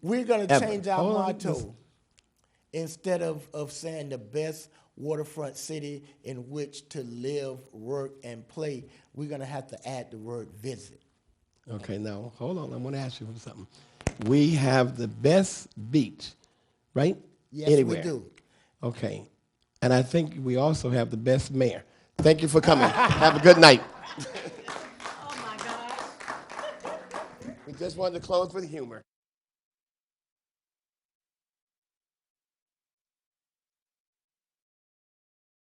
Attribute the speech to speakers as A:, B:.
A: We're going to
B: Ever.
A: change our
B: Hold on,
A: motto.
B: listen.
A: Instead of, of saying the best waterfront city in which to live, work, and play, we're going to have to add the word visit.
B: Okay, now hold on. I'm going to ask you something. We have the best beach, right?
A: Yes, we
B: Anywhere.
A: do.
B: Okay, and I think we also have the best mayor. Thank you for coming. have a good night.
C: Oh, my gosh.
B: We just wanted to close with humor.